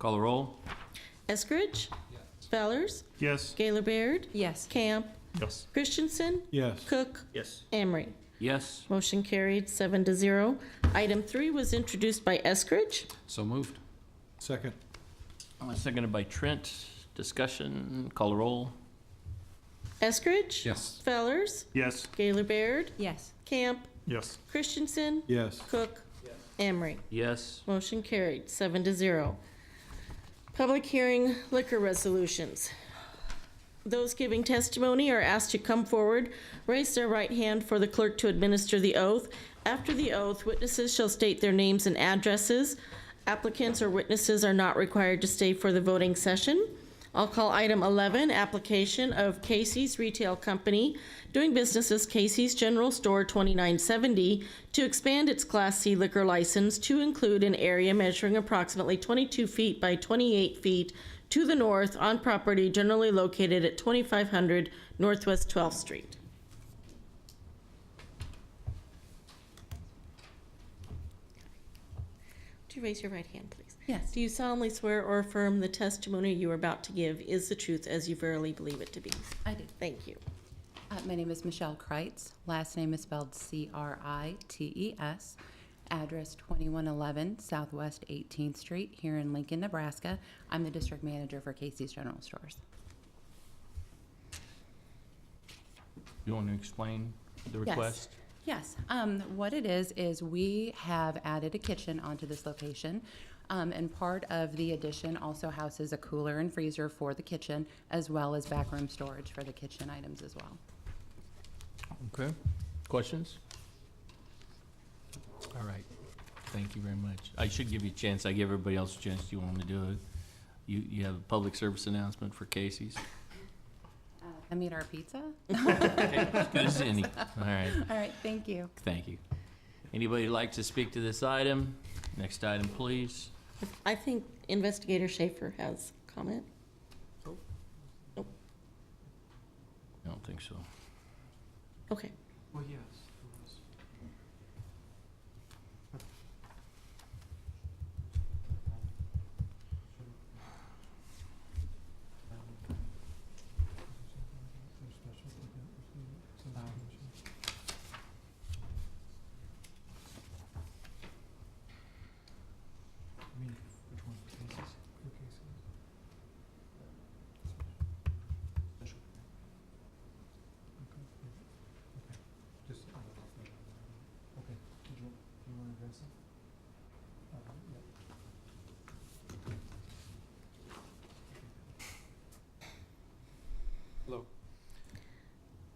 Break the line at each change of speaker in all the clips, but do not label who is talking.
Call a roll?
Eskridge? Fellers?
Yes.
Gaylor Baird?
Yes.
Camp?
Yes.
Christensen?
Yes.
Cook?
Yes.
Emery?
Yes,
Motion carried, seven to zero. Item three was introduced by Eskridge.
so moved.
Second.
Uh, Seconded by Trent. Discussion, call a roll?
Eskridge?
Yes.
Fellers?
Yes.
Gaylor Baird?
Yes.
Camp?
Yes.
Christensen?
Yes.
Cook? Emery?
Yes,
Motion carried, seven to zero. Public hearing liquor resolutions. Those giving testimony are asked to come forward, raise their right hand for the clerk to administer the oath. After the oath, witnesses shall state their names and addresses. Applicants or witnesses are not required to stay for the voting session. I'll call item 11, application of Casey's Retail Company, doing business as Casey's General Store 2970, to expand its Class C liquor license to include an area measuring approximately 22 feet by 28 feet to the north on property generally located at 2500 Northwest 12th Street. Would you raise your right hand, please?
Yes.
Do you solemnly swear or affirm the testimony you are about to give is the truth as you verily believe it to be?
I do.
Thank you.
Uh, my name is Michelle Kreitz. Last name is spelled C R I T E S. Address 2111 Southwest 18th Street here in Lincoln, Nebraska. I'm the district manager for Casey's General Stores.
you want to explain the request?
Yes. Um, what it is, is we have added a kitchen onto this location. Um, and part of the addition also houses a cooler and freezer for the kitchen, as well as backroom storage for the kitchen items as well.
Okay, questions? All right, thank you very much.
I should give you a chance. I give everybody else a chance. Do you want to do it? You, you have a public service announcement for Casey's?
Uh, come eat our pizza.
As good as any. All right,
All right, thank you.
thank you. Anybody like to speak to this item? Next item, please.
I think Investigator Schaefer has comment.
I don't think so.
Okay.
Well, yes, it was. I mean, which one? Cases? Your cases? Special. Okay, yeah. Just, I don't know if they- okay, did you, do you wanna address it? Uh, yeah.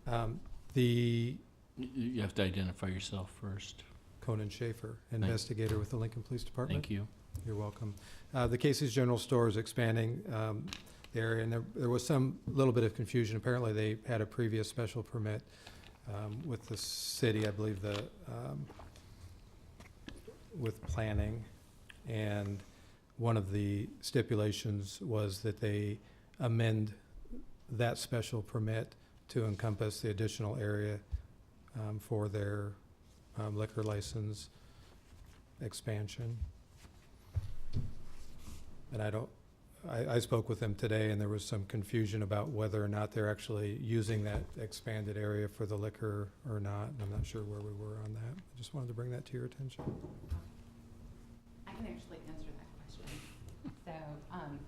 Um, The
You- You have to identify yourself first.
Conan Schaefer, investigator with the Lincoln Police Department.
Thank you.
You're welcome. Uh, The Casey's General Store is expanding um, the area, and there there was some little bit of confusion. Apparently, they had a previous special permit um, with the city, I believe, the, um, with planning. And one of the stipulations was that they amend that special permit to encompass the additional area um, for their um, liquor license expansion. And I don't, I, I spoke with them today and there was some confusion about whether or not they're actually using that expanded area for the liquor or not. And I'm not sure where we were on that. I Just wanted to bring that to your attention.
I can actually answer that question. So, um,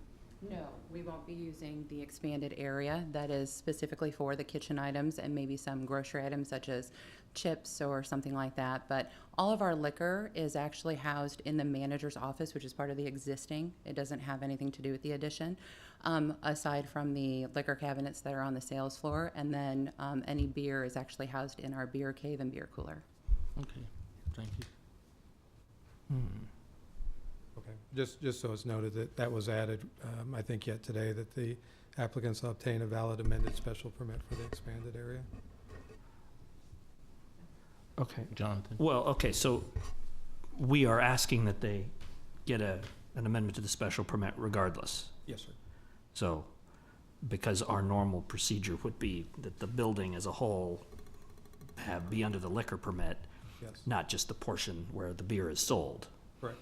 no, we won't be using the expanded area that is specifically for the kitchen items and maybe some grocery items such as chips or something like that. But all of our liquor is actually housed in the manager's office, which is part of the existing. It doesn't have anything to do with the addition, um, aside from the liquor cabinets that are on the sales floor. And then, um, any beer is actually housed in our beer cave and beer cooler.
Okay, thank you.
Hmm. Okay, just, just so it's noted that that was added, um, I think yet today, that the applicants will obtain a valid amended special permit for the expanded area.
Okay,
Jonathan?
well, okay, so we are asking that they get a, an amendment to the special permit regardless.
Yes, sir.
So, because our normal procedure would be that the building as a whole have, be under the liquor permit,
Yes,
not just the portion where the beer is sold.
Correct.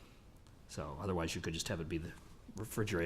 So otherwise you could just have it be the refrigerator